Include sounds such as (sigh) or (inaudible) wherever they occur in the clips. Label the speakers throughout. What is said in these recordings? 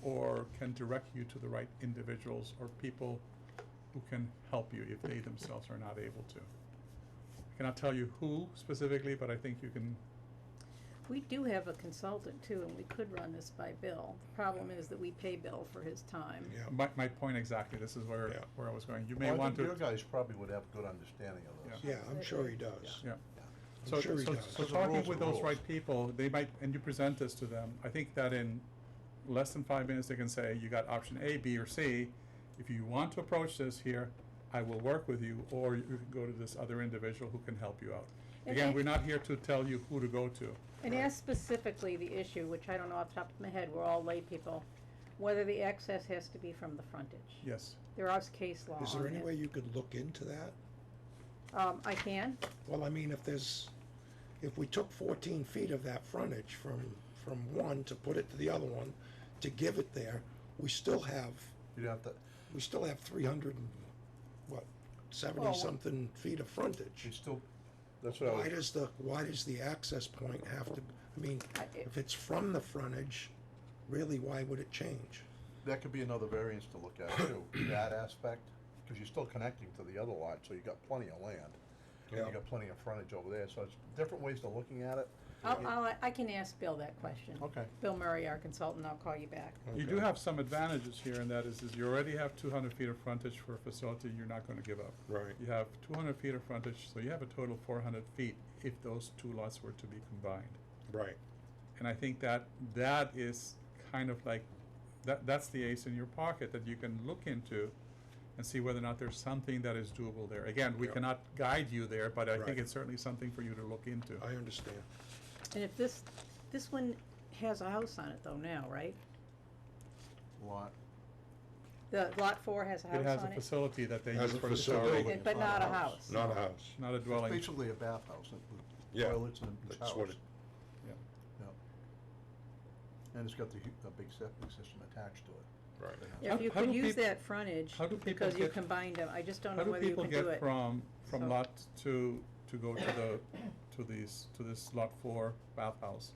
Speaker 1: or can direct you to the right individuals or people who can help you if they themselves are not able to. I cannot tell you who specifically, but I think you can,
Speaker 2: We do have a consultant too, and we could run this by Bill. The problem is that we pay Bill for his time.
Speaker 3: Yeah.
Speaker 1: my, my point exactly, this is where,
Speaker 3: Yeah.
Speaker 1: where I was going. You
Speaker 4: Well,
Speaker 1: may want to.
Speaker 4: I think your guys probably would have a good understanding of this.
Speaker 3: Yeah, I'm sure he does.
Speaker 1: Yeah.
Speaker 4: Yeah.
Speaker 3: I'm
Speaker 1: So,
Speaker 3: sure he
Speaker 1: so,
Speaker 3: does.
Speaker 1: so
Speaker 4: Because the rules
Speaker 1: talking
Speaker 4: are
Speaker 1: with those
Speaker 4: rules.
Speaker 1: right people, they might, and you present this to them, I think that in less than five minutes, they can say, you got option A, B, or C. If you want to approach this here, I will work with you, or you can go to this other individual who can help you out.
Speaker 2: And
Speaker 1: Again,
Speaker 2: I-
Speaker 1: we're not here to tell you who to go to.
Speaker 2: And ask specifically the issue, which I don't know off the top of my head, we're all lay people, whether the access has to be from the frontage.
Speaker 1: Yes,
Speaker 2: There is case law
Speaker 3: Is there
Speaker 2: on
Speaker 3: any
Speaker 2: it.
Speaker 3: way you could look into that?
Speaker 2: Um, I can,
Speaker 3: Well, I mean, if there's, if we took fourteen feet of that frontage from, from one to put it to the other one, to give it there, we still have,
Speaker 4: You'd have to,
Speaker 3: we still have three hundred and, what,
Speaker 4: Well, we-
Speaker 3: seventy-something feet of frontage.
Speaker 4: you still, that's what I
Speaker 3: Why
Speaker 4: was,
Speaker 3: does the, why does the access point have to, I mean,
Speaker 2: I- it-
Speaker 3: if it's from the frontage, really, why would it change?
Speaker 4: that could be another variance to look at
Speaker 1: (coughs)
Speaker 4: too, that aspect, because you're still connecting to the other lot, so you got plenty of land. And
Speaker 3: Yeah.
Speaker 4: you got plenty of frontage over there, so it's different ways to looking at it.
Speaker 2: I'll, I'll, I can ask Bill that question.
Speaker 4: Okay.
Speaker 2: Bill Murray, our consultant, I'll call you back.
Speaker 1: you do
Speaker 3: Okay.
Speaker 1: have some advantages here, and that is, is you already have two hundred feet of frontage for a facility you're not gonna give up.
Speaker 3: Right.
Speaker 1: You have two hundred feet of frontage, so you have a total of four hundred feet if those two lots were to be combined.
Speaker 3: Right.
Speaker 1: And I think that that is kind of like, that, that's the ace in your pocket that you can look into and see whether or not there's something that is doable there. Again, we
Speaker 3: Yeah.
Speaker 1: cannot guide you there, but I
Speaker 3: Right.
Speaker 1: think it's certainly something for you to look into.
Speaker 3: I understand.
Speaker 2: And if this, this one has a house on it though now, right?
Speaker 4: Lot.
Speaker 2: The lot four has a
Speaker 1: It
Speaker 2: house
Speaker 1: has
Speaker 2: on
Speaker 1: a
Speaker 2: it,
Speaker 1: facility that they
Speaker 3: Has
Speaker 1: use
Speaker 3: a
Speaker 1: for the
Speaker 3: facility.
Speaker 1: facility,
Speaker 2: and- but not a house.
Speaker 3: Not a house.
Speaker 1: not a
Speaker 4: It's
Speaker 1: dwelling.
Speaker 4: Basically a bathhouse, it with
Speaker 3: Yeah,
Speaker 4: toilets and a
Speaker 3: that's what
Speaker 4: house.
Speaker 3: it-
Speaker 1: Yeah.
Speaker 4: Yeah. And it's got the, hu- a big septic system attached to it.
Speaker 3: Right.
Speaker 2: If
Speaker 1: How-
Speaker 2: you
Speaker 1: how
Speaker 2: could
Speaker 1: do
Speaker 2: use
Speaker 1: peop-
Speaker 2: that frontage,
Speaker 1: how do people
Speaker 2: because you
Speaker 1: get-
Speaker 2: combined them, I just don't
Speaker 1: How
Speaker 2: know
Speaker 1: do
Speaker 2: whether you
Speaker 1: people
Speaker 2: can do it.
Speaker 1: get from,
Speaker 2: So-
Speaker 1: from lot two to go to the, to these, to this lot four bathhouse?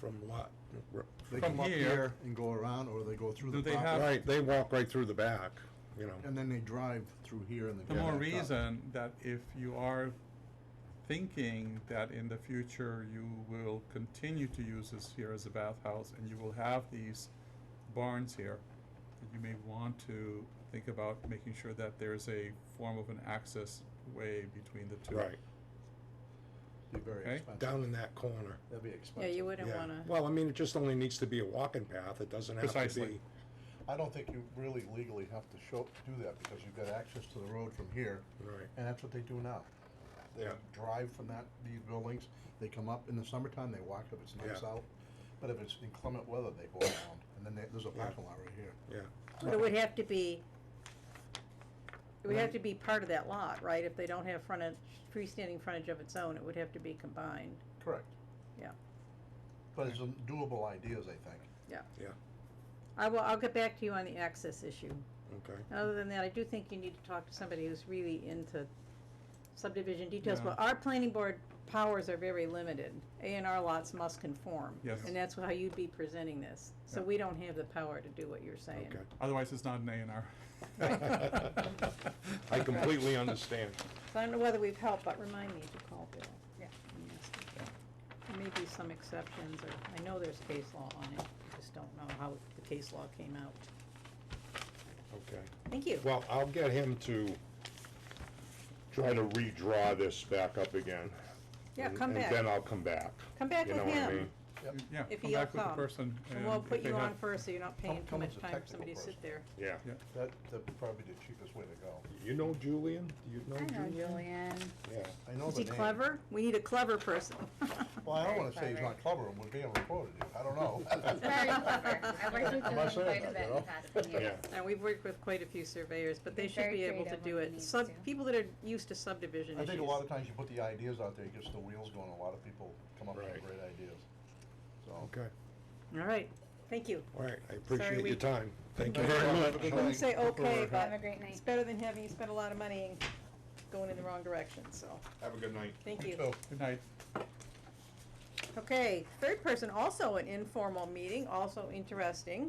Speaker 3: From lot, r-
Speaker 4: They
Speaker 1: From
Speaker 4: come up
Speaker 1: here-
Speaker 4: here and go around, or they go through
Speaker 1: Do
Speaker 4: the
Speaker 1: they
Speaker 4: property.
Speaker 1: have-
Speaker 3: right, they walk right through the back, you know.
Speaker 4: And then they drive through here and they.
Speaker 1: The
Speaker 4: go
Speaker 1: more
Speaker 4: back up.
Speaker 1: reason that if you are thinking that in the future you will continue to use this here as a bathhouse and you will have these barns here, that you may want to think about making sure that there's a form of an access way between the two.
Speaker 3: Right,
Speaker 4: Be very
Speaker 1: Okay.
Speaker 4: expensive.
Speaker 3: down in that corner.
Speaker 4: That'd be
Speaker 2: Yeah,
Speaker 4: expensive.
Speaker 2: you wouldn't
Speaker 3: Yeah.
Speaker 2: wanna,
Speaker 3: Well, I mean, it just only needs to be a walking path, it doesn't have to
Speaker 1: Precisely.
Speaker 3: be,
Speaker 4: I don't think you really legally have to show, do that because you've got access to the road from here.
Speaker 3: Right.
Speaker 4: And that's what they do now. They
Speaker 3: Yeah.
Speaker 4: drive from that, these buildings, they come up in the summertime, they walk if it's nice
Speaker 3: Yeah.
Speaker 4: out. But if it's inclement weather, they go around and then there- there's a
Speaker 3: Yeah.
Speaker 4: parking lot right here.
Speaker 3: yeah,
Speaker 2: but it would have to be, it would have to be part of that lot, right? If they don't have frontage, freestanding frontage of its own, it would have to be combined,
Speaker 4: Correct.
Speaker 2: yeah,
Speaker 4: But it's some doable ideas, I think.
Speaker 2: yeah.
Speaker 3: yeah,
Speaker 2: I will, I'll get back to you on the access issue.
Speaker 3: okay.
Speaker 2: Other than that, I do think you need to talk to somebody who's really into subdivision details,
Speaker 1: Yeah.
Speaker 2: but our planning board powers are very limited. A and R lots must conform.
Speaker 1: Yes.
Speaker 2: And that's how you'd be presenting this, so
Speaker 1: Yeah.
Speaker 2: we don't have the power to do what you're saying.
Speaker 3: Okay.
Speaker 1: Otherwise, it's not an A and R. (laughs)
Speaker 3: I (laughs) completely understand.
Speaker 2: So I don't know whether we've helped, but remind me to call Bill.
Speaker 5: Yeah.
Speaker 2: and ask him. There may be some exceptions, or, I know there's case law on it, I just don't know how the case law came out.
Speaker 3: Okay.
Speaker 2: Thank you.
Speaker 6: Well, I'll get him to try to redraw this back up again.
Speaker 2: Yeah,
Speaker 6: and-
Speaker 2: come back.
Speaker 6: And then I'll come back.
Speaker 2: Come back
Speaker 6: You
Speaker 2: with
Speaker 6: know what I
Speaker 2: him.
Speaker 6: mean?
Speaker 1: Yeah,
Speaker 2: If
Speaker 1: come
Speaker 2: he'll
Speaker 1: back with the
Speaker 2: come.
Speaker 1: person.
Speaker 2: And we'll
Speaker 1: if
Speaker 2: put
Speaker 1: they
Speaker 2: you on
Speaker 1: have-
Speaker 2: first, so you're not
Speaker 4: Come-
Speaker 2: paying too
Speaker 4: come
Speaker 2: much
Speaker 4: as a
Speaker 2: time for
Speaker 4: technical
Speaker 2: somebody to sit
Speaker 4: person.
Speaker 2: there.
Speaker 6: Yeah.
Speaker 1: Yeah,
Speaker 4: That, that'd probably be the cheapest way to go.
Speaker 3: You know Julian? Do you know
Speaker 5: I know
Speaker 3: Julian?
Speaker 5: Julian.
Speaker 3: Yeah,
Speaker 4: I know
Speaker 2: Is
Speaker 4: the
Speaker 2: he
Speaker 4: name.
Speaker 2: clever? We need a clever
Speaker 4: (laughs)
Speaker 2: person.
Speaker 4: Well, I don't
Speaker 5: Very
Speaker 4: wanna say he's
Speaker 5: clever.
Speaker 4: not clever and would be able to quote it, (laughs) I don't know.
Speaker 5: Very clever. I worked with
Speaker 4: (laughs) I'm not
Speaker 5: Julian
Speaker 4: saying
Speaker 5: quite
Speaker 4: that, you
Speaker 5: a bit in the
Speaker 4: know.
Speaker 5: past few years.
Speaker 6: Yeah.
Speaker 2: And we've worked with quite a few surveyors, but they
Speaker 5: He's
Speaker 2: should
Speaker 5: very
Speaker 2: be able to
Speaker 5: creative
Speaker 2: do
Speaker 5: when he
Speaker 2: it.
Speaker 5: needs
Speaker 2: Sub,
Speaker 5: to.
Speaker 2: people that are used to subdivision
Speaker 4: I
Speaker 2: issues.
Speaker 4: think a lot of times you put the ideas out there, it gets the wheels going, a lot of people come up with
Speaker 3: Right.
Speaker 4: great ideas. So,
Speaker 3: okay,
Speaker 2: All right, thank you.
Speaker 3: all right, I
Speaker 2: Sorry,
Speaker 3: appreciate
Speaker 2: we-
Speaker 3: your time. Thank you
Speaker 4: Thank
Speaker 3: very
Speaker 4: you.
Speaker 3: much.
Speaker 4: Have a good
Speaker 2: I wouldn't
Speaker 4: night.
Speaker 2: say okay,
Speaker 5: Have
Speaker 2: but
Speaker 5: a great night.
Speaker 2: it's better than having you spend a lot of money and going in the wrong direction, so,
Speaker 3: Have a good night.
Speaker 2: thank
Speaker 4: you
Speaker 2: you.
Speaker 4: too.
Speaker 1: good night.
Speaker 2: Okay, third person, also an informal meeting, also interesting.